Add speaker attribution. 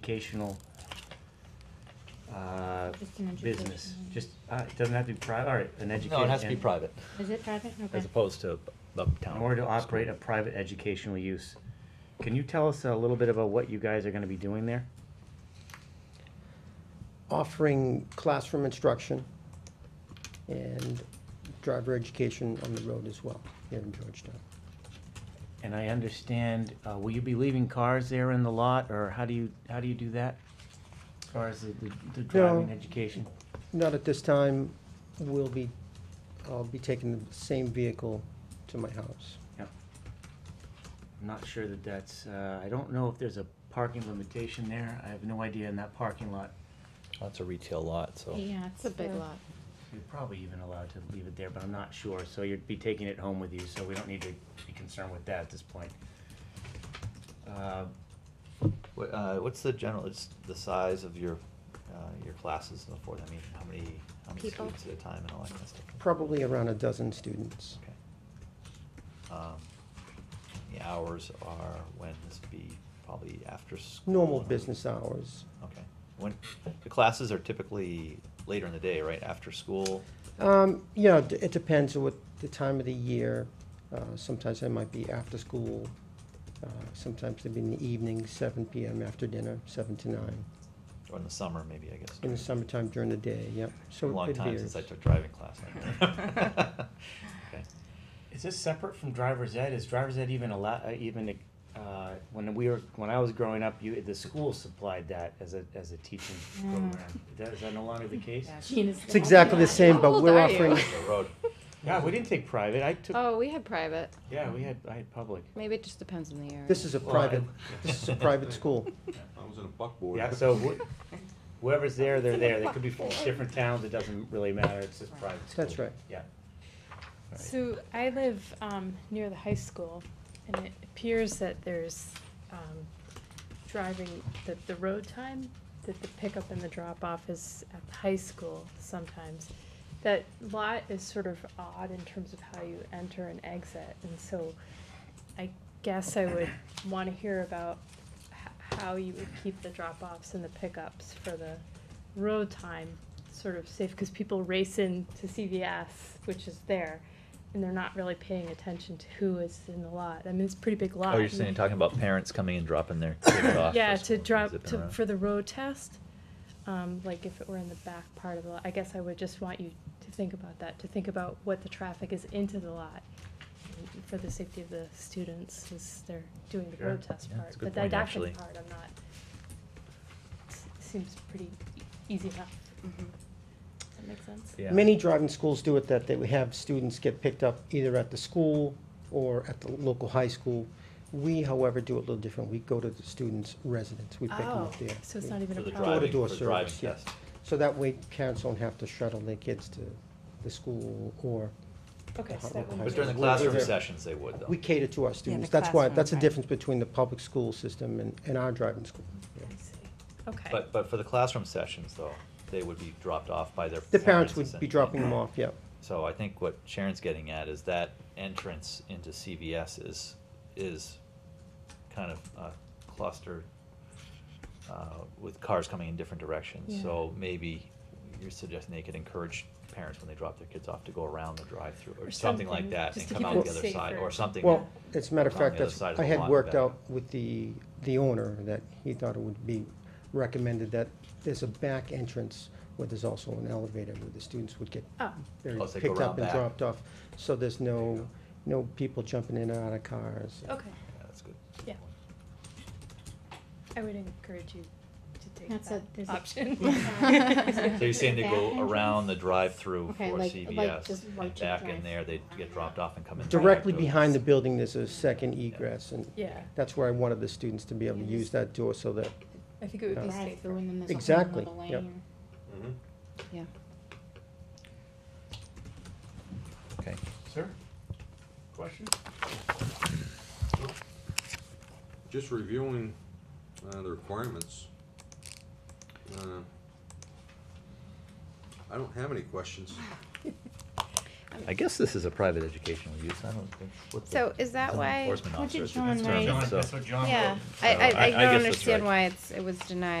Speaker 1: educational uh,
Speaker 2: Just an
Speaker 1: business,
Speaker 2: educational.
Speaker 1: just, uh, it doesn't have to be private, all right, an education.
Speaker 3: No, it has to be private,
Speaker 2: Is it private? Okay.
Speaker 3: as opposed to uptown.
Speaker 1: In order to operate a private educational use. Can you tell us a little bit about what you guys are gonna be doing there?
Speaker 4: offering classroom instruction and driver education on the road as well here in Georgetown.
Speaker 1: And I understand, uh, will you be leaving cars there in the lot, or how do you, how do you do that? As far as the, the- the driving
Speaker 4: No.
Speaker 1: education?
Speaker 4: Not at this time, we'll be, I'll be taking the same vehicle to my house.
Speaker 1: I'm not sure that that's, uh, I don't know if there's a parking limitation there, I have no idea in that parking lot.
Speaker 3: That's a retail lot, so.
Speaker 2: Yeah,
Speaker 5: It's a big lot.
Speaker 1: You're probably even allowed to leave it there, but I'm not sure, so you'd be taking it home with you, so we don't need to be concerned with that at this point. Uh,
Speaker 6: Wha- uh, What's the general, it's the size of your, uh, your classes and so forth? I mean, how many, how many
Speaker 5: People.
Speaker 6: students at a time and all that kind of stuff?
Speaker 4: Probably around a dozen students.
Speaker 6: Okay. Um, The hours are, when this would be probably after school?
Speaker 4: Normal
Speaker 6: on the
Speaker 4: business
Speaker 6: weekend?
Speaker 4: hours.
Speaker 6: Okay. When, the classes are typically later in the day, right? After school?
Speaker 4: Um, you know, it depends on what the time of the year. Uh, sometimes I might be after school. Uh, sometimes they'd be in the evening, seven PM after dinner, seven to nine.
Speaker 6: Or in the summer, maybe, I guess.
Speaker 4: In the summertime during the day, yep. So
Speaker 6: Long
Speaker 4: it
Speaker 6: time since I
Speaker 4: varies.
Speaker 6: took driving class. Okay.
Speaker 1: Is this separate from driver's ed? Is driver's ed even allow, uh, even, uh, when we were, when I was growing up, you, the school supplied that as a, as a teaching
Speaker 2: Mm.
Speaker 1: program. Is that- Is that no longer the case?
Speaker 2: Gene is
Speaker 4: It's exactly the same,
Speaker 5: How
Speaker 4: but
Speaker 5: old
Speaker 4: we're
Speaker 5: are you?
Speaker 4: offering,
Speaker 6: The road.
Speaker 1: Yeah, we didn't take private, I took,
Speaker 5: Oh, we had private.
Speaker 1: yeah, we had, I had public.
Speaker 5: Maybe it just depends on the area.
Speaker 4: this is a
Speaker 1: Well,
Speaker 4: private,
Speaker 1: I-
Speaker 4: this is a private school.
Speaker 7: I was in a buckboard.
Speaker 1: Yeah, so wh- whoever's there, they're there, they could be from different towns, it doesn't really matter, it's just private school.
Speaker 4: That's right.
Speaker 1: Yeah. Right.
Speaker 8: So I live um, near the high school, and it appears that there's um, driving, that the road time, that the pickup and the drop-off is at the high school sometimes. That lot is sort of odd in terms of how you enter and exit, and so I guess I would want to hear about h- how you would keep the drop-offs and the pickups for the road time sort of safe, because people race in to CVS, which is there, and they're not really paying attention to who is in the lot. I mean, it's a pretty big lot.
Speaker 6: Oh, you're saying, talking about parents coming and dropping their kids off.
Speaker 8: Yeah,
Speaker 6: for school
Speaker 8: to
Speaker 6: and
Speaker 8: drop,
Speaker 6: zipping
Speaker 8: to,
Speaker 6: around.
Speaker 8: for the road test, um, like if it were in the back part of the lot, I guess I would just want you to think about that, to think about what the traffic is into the lot. and For the safety of the students, as they're doing the
Speaker 1: Sure.
Speaker 8: road test
Speaker 6: Yeah,
Speaker 8: part,
Speaker 6: that's a good
Speaker 8: but the
Speaker 6: point,
Speaker 8: didactic
Speaker 6: actually.
Speaker 8: part, I'm not. s- Seems pretty e- easy enough.
Speaker 5: Mhm.
Speaker 8: Does that make sense?
Speaker 6: Yeah.
Speaker 4: Many driving schools do it that they would have students get picked up either at the school or at the local high school. We, however, do it a little different. We go to the students' residence. We pick them
Speaker 8: Oh,
Speaker 4: up there.
Speaker 8: so it's not even
Speaker 6: For
Speaker 8: a
Speaker 6: the
Speaker 8: problem.
Speaker 6: driving,
Speaker 4: Door-to-door
Speaker 6: for the driving
Speaker 4: service, yeah.
Speaker 6: test.
Speaker 4: So that way parents don't have to shuttle their kids to the school or,
Speaker 8: Okay, so that
Speaker 4: But
Speaker 8: one.
Speaker 6: But
Speaker 4: Right.
Speaker 6: during the
Speaker 4: We're- we're
Speaker 6: classroom
Speaker 4: there.
Speaker 6: sessions, they would though.
Speaker 4: we cater to our students. That's why,
Speaker 5: classroom,
Speaker 4: that's the
Speaker 5: right.
Speaker 4: difference between the public school system and, and our driving school.
Speaker 8: I see. Okay.
Speaker 6: But, but for the classroom sessions though, they would be dropped off by their.
Speaker 4: The parents would be
Speaker 6: essentially.
Speaker 4: dropping them off, yeah.
Speaker 6: So I think what Sharon's getting at is that entrance into CVS is, is kind of uh, clustered uh, with cars coming in different directions.
Speaker 8: Yeah.
Speaker 6: So maybe you're suggesting they could encourage parents when they drop their kids off to go around the drive-through or
Speaker 8: Or
Speaker 6: something
Speaker 8: something,
Speaker 6: like that
Speaker 8: just
Speaker 6: and
Speaker 8: to
Speaker 6: come
Speaker 8: keep
Speaker 6: out
Speaker 8: it
Speaker 6: the other side
Speaker 8: safer.
Speaker 6: or something.
Speaker 4: Well, as a matter of
Speaker 6: on the
Speaker 4: fact,
Speaker 6: other
Speaker 4: that's,
Speaker 6: side of the
Speaker 4: I had
Speaker 6: lot
Speaker 4: worked
Speaker 6: better.
Speaker 4: out with the, the owner that he thought it would be recommended that there's a back entrance where there's also an elevator where the students would get
Speaker 8: Oh,
Speaker 4: very
Speaker 6: Oh, so they go
Speaker 4: picked
Speaker 6: around
Speaker 4: up and
Speaker 6: back.
Speaker 4: dropped off. So there's
Speaker 6: There
Speaker 4: no,
Speaker 6: you
Speaker 4: no people jumping in and out of cars.
Speaker 8: okay.
Speaker 6: Yeah, that's good.
Speaker 8: Yeah. I would encourage you to take
Speaker 2: That's a- there's
Speaker 8: that
Speaker 2: a-
Speaker 8: option.
Speaker 6: So you're saying they go
Speaker 2: Back
Speaker 6: around the
Speaker 2: entrance?
Speaker 6: drive-through for
Speaker 2: Okay, like- like
Speaker 6: CVS,
Speaker 2: just
Speaker 6: and
Speaker 2: right to
Speaker 6: back in
Speaker 2: drive.
Speaker 6: there, they get dropped off and come in.
Speaker 4: Directly
Speaker 6: through.
Speaker 4: behind the building, there's a second egress, and
Speaker 8: Yeah,
Speaker 4: that's where I wanted the students to be able to
Speaker 2: Yeah,
Speaker 4: use that door so that,
Speaker 8: I think it would be
Speaker 2: Drive through
Speaker 8: safer.
Speaker 2: and then there's a whole
Speaker 4: Exactly,
Speaker 2: nother lane
Speaker 4: yep.
Speaker 2: or-
Speaker 7: Mhm.
Speaker 5: Yeah.
Speaker 6: Okay.
Speaker 1: Sir? Question?
Speaker 7: Just reviewing uh, the requirements. uh, I don't have any questions.
Speaker 6: I guess this is a private educational use, I don't think. what the-
Speaker 5: So is that
Speaker 6: it's an
Speaker 5: why-
Speaker 6: Enforcement
Speaker 9: What did
Speaker 6: officer is the
Speaker 9: John
Speaker 6: concern,
Speaker 9: write?
Speaker 6: so-
Speaker 1: That's what John wrote.
Speaker 5: Yeah, I, I,
Speaker 6: So I- I
Speaker 5: I
Speaker 6: guess that's
Speaker 5: don't understand
Speaker 6: right.
Speaker 5: why it's, it was denied.